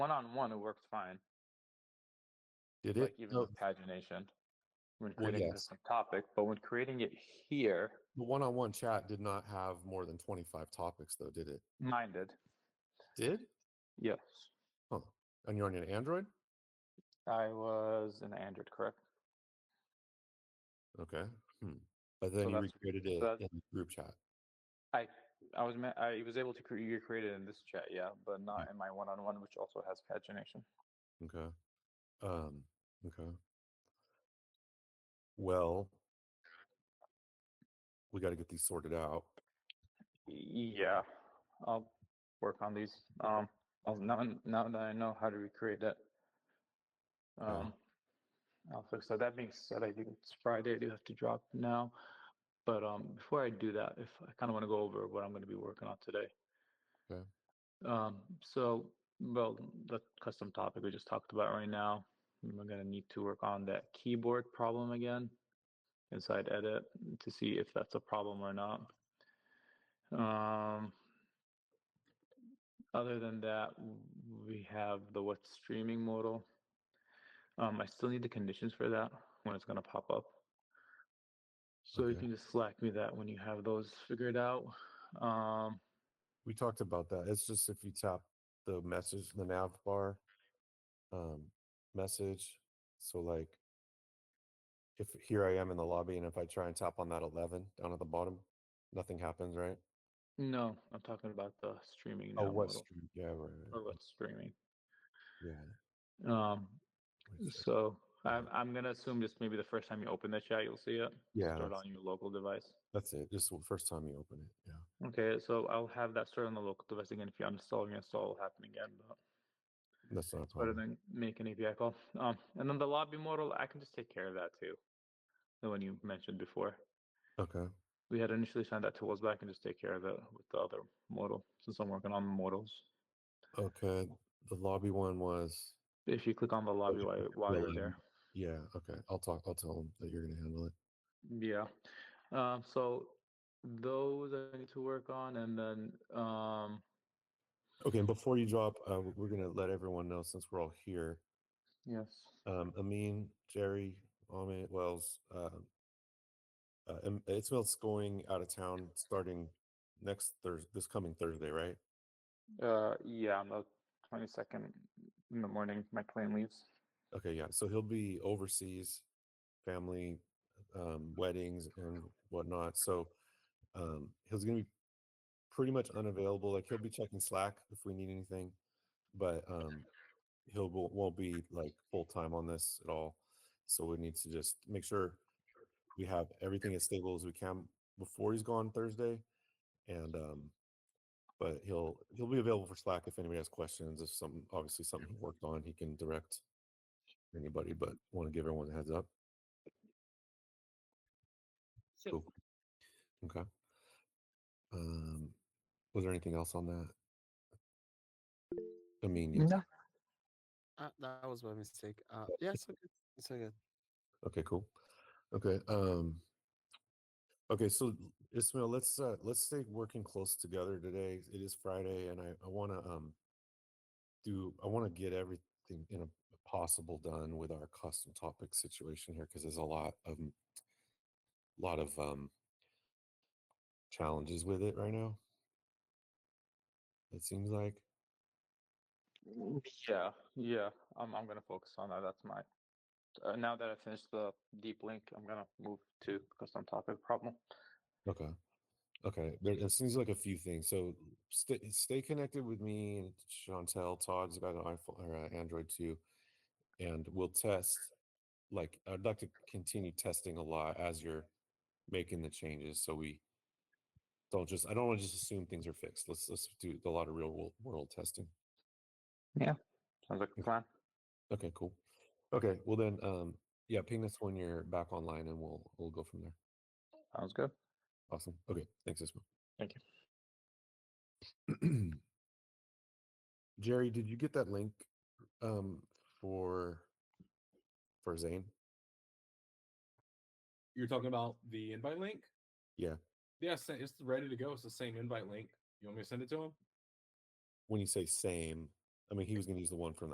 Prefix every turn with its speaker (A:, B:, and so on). A: one on one, it worked fine.
B: Did
A: Like
B: it?
A: even
B: No,
A: with pagination, when
B: Well,
A: creating a
B: yes.
A: different topic, but when creating it here,
B: the one-on-one chat did not have more than twenty-five topics, though, did it?
A: mine did.
B: Did?
A: Yes,
B: And you're on an Android?
A: I was an Android, correct?
B: Okay. Hmm. But then you
A: that's-
B: recreated it
A: that-
B: in group chat.
A: I I was ma- I was able to cre- recreate it in this chat, yeah,
B: Hmm.
A: but not in my one on one, which also has pagination.
B: Okay. Um. Okay. Well, we got to get these sorted out.
A: Yeah, I'll work on these. Um, I'll, now now that I know how to recreate that,
B: Okay.
A: um, I'll fix that. That being said, I think it's Friday. I do have to drop now, but um, before I do that, if I kind of want to go over what I'm going to be working on today.
B: Okay.
A: Um, so well, the custom topic we just talked about right now. We're going to need to work on that keyboard problem again inside edit to see if that's a problem or not. Um, other than that, w- we have the what's streaming modal. Um, I still need the conditions for that when it's going to pop up. So you
B: Okay.
A: can just slack me that when you have those figured out. Um,
B: We talked about that. It's just if you tap the message, the nav bar, um, message. So like, if here I am in the lobby, and if I try and tap on that eleven down at the bottom, nothing happens, right?
A: no, I'm talking about the streaming.
B: Oh,
A: now
B: what
A: modal,
B: stream? Yeah, right. right,
A: or what's streaming?
B: Yeah.
A: Um,
B: wait a sec.
A: so I'm, I'm gonna assume just maybe the first time you open the chat, you'll see it.
B: Yeah,
A: Start
B: that's,
A: on your local device.
B: that's it. Just the first time you open it. Yeah.
A: Okay, so I'll have that start on the local device again. If you uninstall, reinstall will happen again, but
B: That's not a
A: it's better
B: problem.
A: than make an API call. Um, and then the lobby model, I can just take care of that too. The one you mentioned before.
B: Okay.
A: We had initially signed that tools back and just take care of it with the other model since I'm working on models.
B: Okay. The lobby one was,
A: If you click on the lobby
B: you
A: while,
B: click
A: while you're
B: lobby.
A: there.
B: yeah. Okay. I'll talk, I'll tell them that you're going to handle it.
A: Yeah. Um, so those I need to work on and then um
B: Okay. And before you drop, uh, w- we're going to let everyone know since we're all here.
A: yes.
B: Um, Amin, Jerry, Amit, Wells, uh, uh, Im- Ismail's going out of town starting next Thursday, this coming Thursday, right?
A: Uh yeah, on the twenty second in the morning my plane leaves.
B: Okay. Yeah. So he'll be overseas, family, um, weddings and whatnot. So um, he's going to be pretty much unavailable. Like he'll be checking Slack if we need anything, but um, he'll won't won't be like full time on this at all. So we need to just make sure we have everything as stable as we can before he's gone Thursday, and um, but he'll he'll be available for Slack if anybody has questions. If something obviously something he worked on, he can direct anybody. But want to give everyone a heads up.
C: So,
B: Cool. Okay. Um, was there anything else on that? I mean, yes.
C: uh, that was my mistake. Uh, yeah, it's okay. It's okay.
B: Okay, cool. Okay. Um, okay. So Ismail, let's, uh, let's stay working close together today. It is Friday and I, I want to, um, do, I want to get everything in a possible done with our custom topic situation here. Cause there's a lot of, lot of, um, challenges with it right now. It seems like.
A: Yeah, yeah. I'm I'm gonna focus on that. That's my. Uh, now that I finished the deep link, I'm gonna move to custom topic problem.
B: Okay. Okay. There it seems like a few things. So stay stay connected with me and Chantel. Todd's got an iPhone or uh, Android too, and we'll test. Like I'd like to continue testing a lot as you're making the changes, so we don't just. I don't want to just assume things are fixed. Let's let's do a lot of real world, world testing.
A: Sounds like a
B: Okay.
A: plan.
B: Okay, cool. Okay, well then, um, yeah, ping us when you're back online, and we'll we'll go from there.
A: Sounds good.
B: Awesome. Okay. Thanks, Ismail.
A: Thank
B: you. Jerry, did you get that link um, for for Zane?
D: You're talking about the invite link?
B: Yeah.
D: Yeah, it's- it's ready to go. It's the same invite link. You want me to send it to him?
B: When you say same, I mean, he was going to use the one from